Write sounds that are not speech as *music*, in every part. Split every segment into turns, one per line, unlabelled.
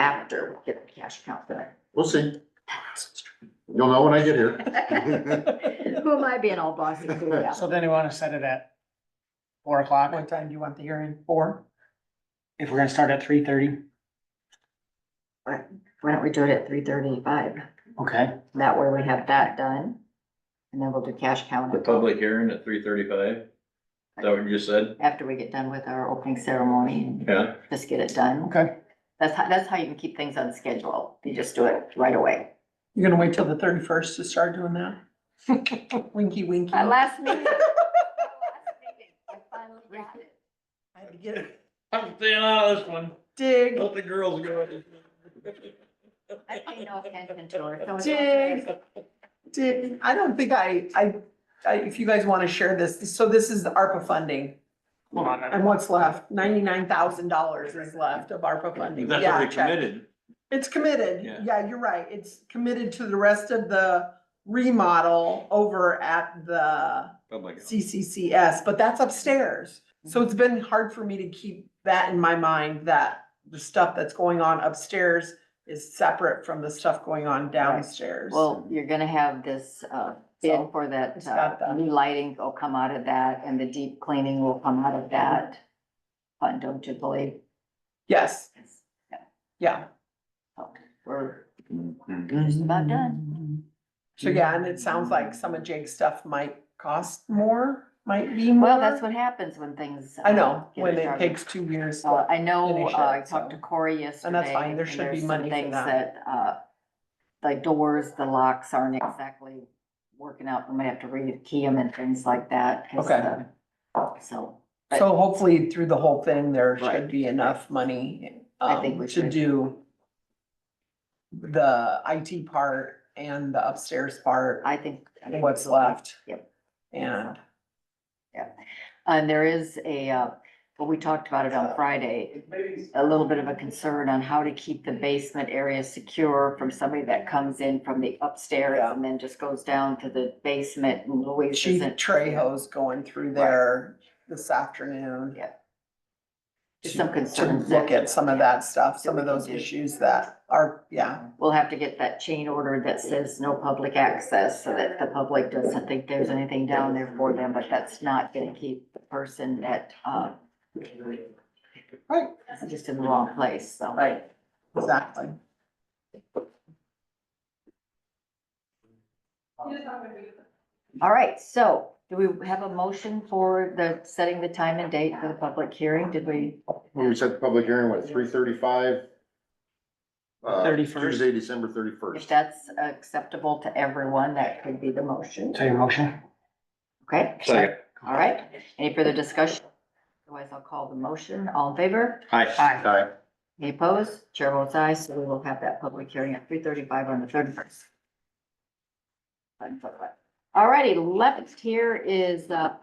after we'll get the cash account for
We'll see. You'll know when I get here.
that. *laughs* Who am I being all bossy to about?
*laughs* So then you wanna set it at four o'clock, what time do you want the hearing, four? If we're gonna start at three thirty,
Why don't we do it at three thirty-five?
okay,
That way we have that done. And then we'll do cash count
The public hearing at three thirty-five? Is that what you just said?
after we get done with our opening ceremony and
Yeah,
just get it done.
okay.
That's how, that's how you can keep things on schedule. You just do it right away.
You're gonna wait till the thirty-first to start doing that? Winky winky.
My last *laughs* meeting. my last meeting, I finally got it.
Had to get a
I'm staying out of this one.
*laughs* Dig.
Let the girls go.
I pay no attention to her. so it's okay.
Dig. Dig. I don't think I, I, I, if you guys wanna share this, so this is the ARPA funding.
Hold on,
And what's left? Ninety-nine thousand dollars is left of ARPA funding.
That's
Yeah,
already
check.
committed.
It's committed.
Yeah.
Yeah, you're right. It's committed to the rest of the remodel over at the
Public.
CCCS, but that's upstairs. So it's been hard for me to keep that in my mind, that the stuff that's going on upstairs is separate from the stuff going on downstairs.
Well, you're gonna have this, uh, bid
So,
for that,
it's got
uh,
that.
new lighting will come out of that and the deep cleaning will come out of that. Fund, don't you believe?
Yes, yeah.
So We're
Mm-hmm.
just about done.
So yeah, and it sounds
Mm.
like some of Jake's stuff might cost more, might be more.
Well, that's what happens when things.
I
uh,
know,
get
when it
started.
takes two years.
So I know,
finish
uh, I
it,
talked to
so.
Corey yesterday.
fine, there should be
there's some
money for
Things
that.
that, uh, the doors, the locks aren't exactly working out. We might have to rekey them and things like that. 'cause,
Okay.
uh, So but-
So hopefully through the whole thing, there
Right.
should be enough money,
I think we
um, to
should.
do the IT part and the upstairs part,
I think. I think
what's
we'll be-
left.
Yep.
And,
And there is a, uh, well, we talked about it
Uh,
on Friday, a little bit of a concern on how to keep the basement area secure from somebody that comes in from the upstairs
Yeah.
and then just goes down to the basement and Louise
Chief
isn't.
Trejo's going through there this afternoon.
Yeah.
to-
Some
to
concerns
Look
that-
at some of that stuff, some
we
of
can
those
do.
issues that are, yeah,
We'll have to get that chain order that says no public access so that the public doesn't think there's anything down there for them, but that's not gonna keep the person that, uh,
Right.
is just in the wrong place, so.
right, exactly.
All right, so do we have a motion for the, setting the time and date for the public hearing? Did we?
We set the public hearing, what, three thirty-five? Uh,
31st.
Tuesday, December
If
thirty-first.
that's acceptable to everyone, that could be the motion.
so your motion?
Okay,
Second.
all right. Any further discussion? Otherwise, I'll call the motion. All in favor?
Hi.
Aye.
Any opposed? Chair votes aye, so we will have that public hearing at three thirty-five on the thirty-first. All righty, left here is, uh,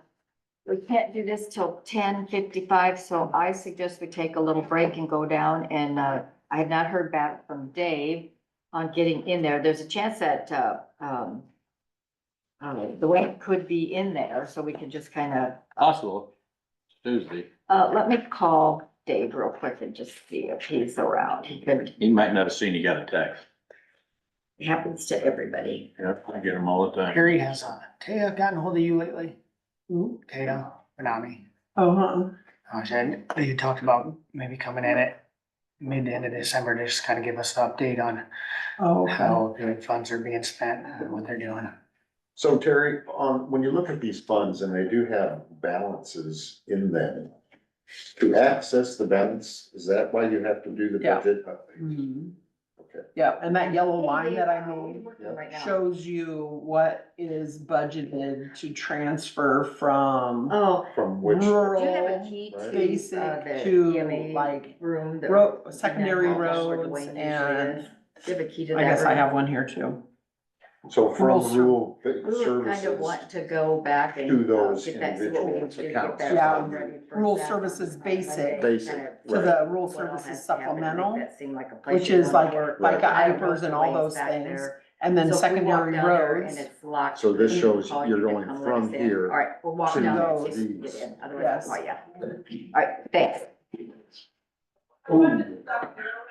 we can't do this till ten fifty-five, so I suggest we take a little break and go down and, uh, I have not heard back from Dave on getting in there. There's a chance that, uh, um, uh, the weight could be in there, so we can just kind of,
Possible. Tuesday.
uh, let me call Dave real quick and just see if he's around. He could
He might not have seen you got a text.
It happens to everybody.
Yeah, I get them all the time.
Harry has, uh, Taya gotten hold of you lately?
Who?
Taya, Benami, Uh,
Uh-huh.
I said, you talked about maybe coming in at mid to end of December to just kind of give us an update on
Oh, okay.
how the funds are being spent, and what they're doing.
So Terry, um, when you look at these funds and they do have balances in them, to access the balance, is that why you have to do the
Yeah.
budget?
Mm. Mm-hmm.
Mhm.
Okay.
Yeah, and that yellow line that I made
Right now.
shows you what is budgeted to transfer from
Oh,
From which,
do you have a
rural
key
Right.
to
basic
uh, the
to
EMA
like
room? that-
ro- secondary
Yeah, that's where
roads
Dwayne usually
and
is. Do you have a key to that?
I guess I
room?
have one here too.
so from rural
We would kind of
services,
want to go back and.
To
uh,
those
get that- see what we
individual
need to do to get
accounts.
that
Yeah,
room ready for
rural
that.
services
Monday,
basic
Basic,
kind of
To
Right.
the rural
what all has
services
to happen to make
supplemental,
that seem like a place
which
you
is
wanna
like,
work.
like
Right.
I don't know
IPers
if
and all
Dwayne's
those
back
things.
there.
And then
So if we walk
secondary
down there
roads.
And it's locked.
So this
we
shows
call
you're
you to
going
come let
from
us in.
here
All right, we'll walk
to
down there and see if
those.
we can get in, otherwise I'll
Yes.
call you. All right, thanks.